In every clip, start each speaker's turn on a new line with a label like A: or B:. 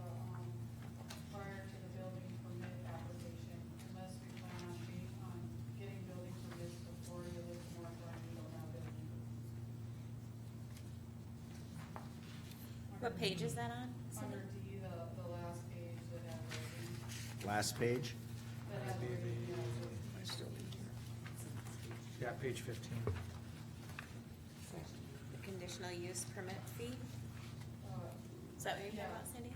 A: um,
B: What page is that on?
A: Under D, the, the last page that had everything,
C: Last page?
A: that had everything, yeah, so-
C: I still need here.
D: Yeah, page fifteen.
B: The Conditional use permit fee?
A: uh,
B: Is that what you're talking about, Cindy?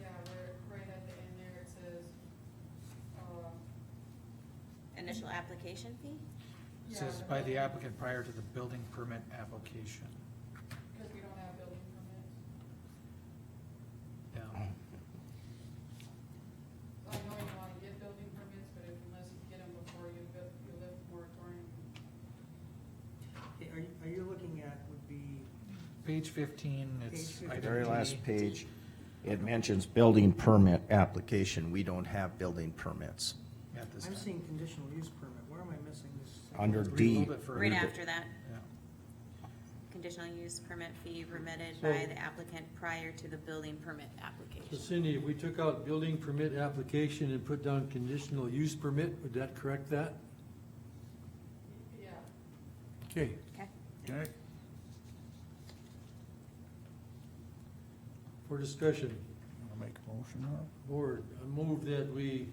A: yeah, right, right at the end there, it says, uh,
B: Initial application fee?
D: It
A: yeah,
D: Says
A: but
D: by the
A: then-
D: applicant prior to the building permit application.
A: Cause we don't have building permits.
D: Yeah,
A: I know you wanna get building permits, but if unless you get them before you, bu- you lift moratorium,
E: Okay, Are you, are you looking at would be,
D: page fifteen, it's.
E: Page
D: item
E: fifteen.
C: Very
D: D.
C: last page, it mentions building permit application. We don't have building permits.
D: At this
E: I'm
D: time.
E: seeing conditional use permit, where am I missing this?
C: Under
D: Read a
C: D.
D: little bit further.
B: Right after that,
D: Yeah.
B: conditional use permit fee remitted by the applicant prior to the building permit
F: So
B: application.
F: Cindy, if we took out building permit application and put down conditional use permit, would that correct that?
A: yeah.
F: Okay.
B: Okay,
F: Okay. For discussion,
G: I'll make a motion now.
F: board, I move that we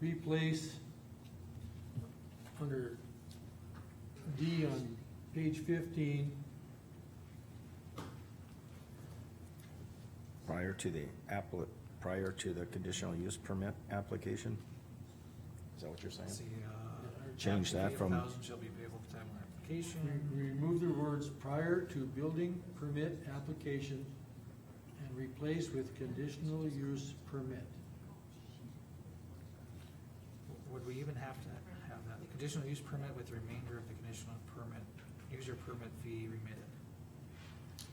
F: replace under D on page fifteen,
C: Prior to the appli, prior to the conditional use permit application? Is that what you're
D: Let's see,
C: saying?
D: uh,
C: Change that
D: application
C: from-
D: of Thousand shall be payable at the time of
F: we
D: application.
F: we remove the words prior to building permit application and replace with conditional use permit.
D: Would we even have to have that? The conditional use permit with the remainder of the conditional permit, user permit fee remitted.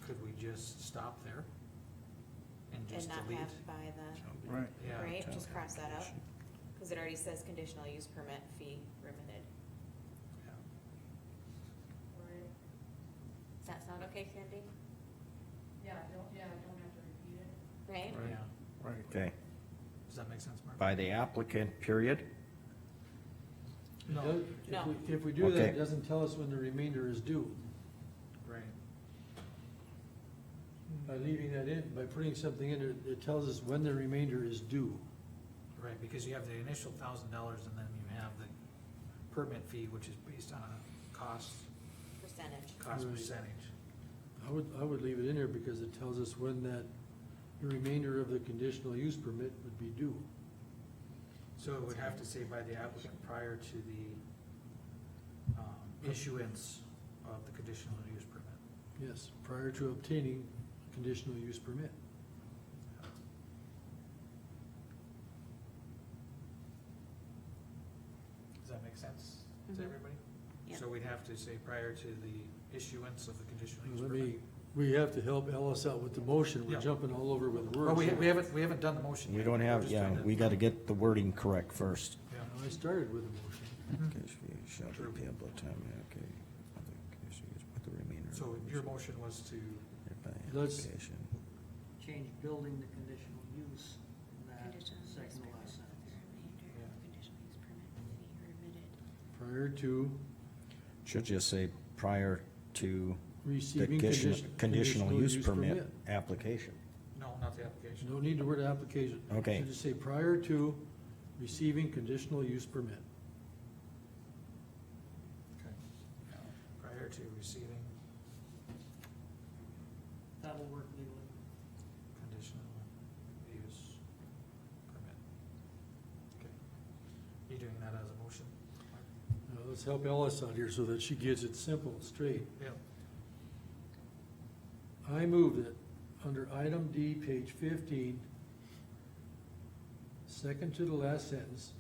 D: Could we just stop there? And
B: and
D: just
B: not
D: delete?
B: have by the,
G: Right.
D: Yeah.
B: right, just cross that out, cause it already says conditional use permit fee remitted.
D: Yeah.
A: Right,
B: Does that sound okay, Cindy?
A: yeah, don't, yeah, don't have to repeat it.
B: Right?
D: Yeah,
G: Right.
C: Okay,
D: does that make sense, Mark?
C: by the applicant, period?
D: No.
F: Does- if
B: No.
F: we- If we do that, it
C: Okay.
F: doesn't tell us when the remainder is due.
D: Right.
F: By leaving that in, by putting something in there, it tells us when the remainder is due.
D: Right, because you have the initial thousand dollars and then you have the permit fee, which is based on a cost,
B: Percentage.
D: cost
F: Right.
D: percentage.
F: I would, I would leave it in there because it tells us when that, the remainder of the conditional use permit would be due.
D: So it would have to say by the applicant prior to the, um, issuance of the conditional use permit.
F: Yes, prior to obtaining conditional use permit.
D: Does that make sense
B: Mhm.
D: to everybody?
B: Yeah.
D: So we'd have to say prior to the issuance of the conditional use
F: Let
D: permit.
F: me, we have to help Alice out with the motion.
D: Yeah.
F: We're jumping all over with words.
D: Well, we, we haven't, we haven't done the motion yet.
C: We don't
D: We're
C: have,
D: just
C: yeah,
D: trying to-
C: we gotta get the wording correct first.
D: Yeah.
F: I started with a motion.
C: shall
D: True.
C: be payable at time, okay. Other conditional use with the remainder of
D: So
C: the
D: your
C: condition
D: motion was to,
C: by
F: Let's-
C: application.
E: Change building to conditional use in that
B: Conditional use
E: second to last
B: permit with the
E: sentence.
B: remainder of conditional use permit fee remitted.
F: Prior to
C: Should just say prior to the
F: receiving
C: condition,
F: condi-
C: conditional use permit application.
D: no, not the application.
F: No need to word application.
C: Okay.
F: Should just say prior to receiving conditional use permit.
D: Okay. Prior to receiving
E: That will work legally.
D: conditional use permit. Okay. You doing that as a motion?
F: Now, let's help Alice out here so that she gets it simple, straight.
D: Yeah.
F: I move that under item D, page fifteen, second to the last sentence,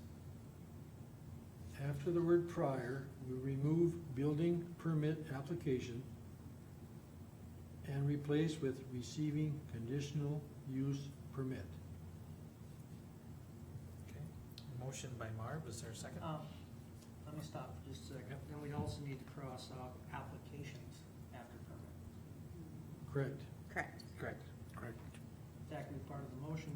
F: after the word prior, we remove building permit application and replace with receiving conditional use permit.
D: Okay. Motion by Marv, is there a second?
E: Um, Let me stop for just a second.
D: Yep.
E: Then we'd also need to cross out applications after permit.
F: Correct.
B: Correct.
D: Correct. Correct.
E: That could be part of the motion,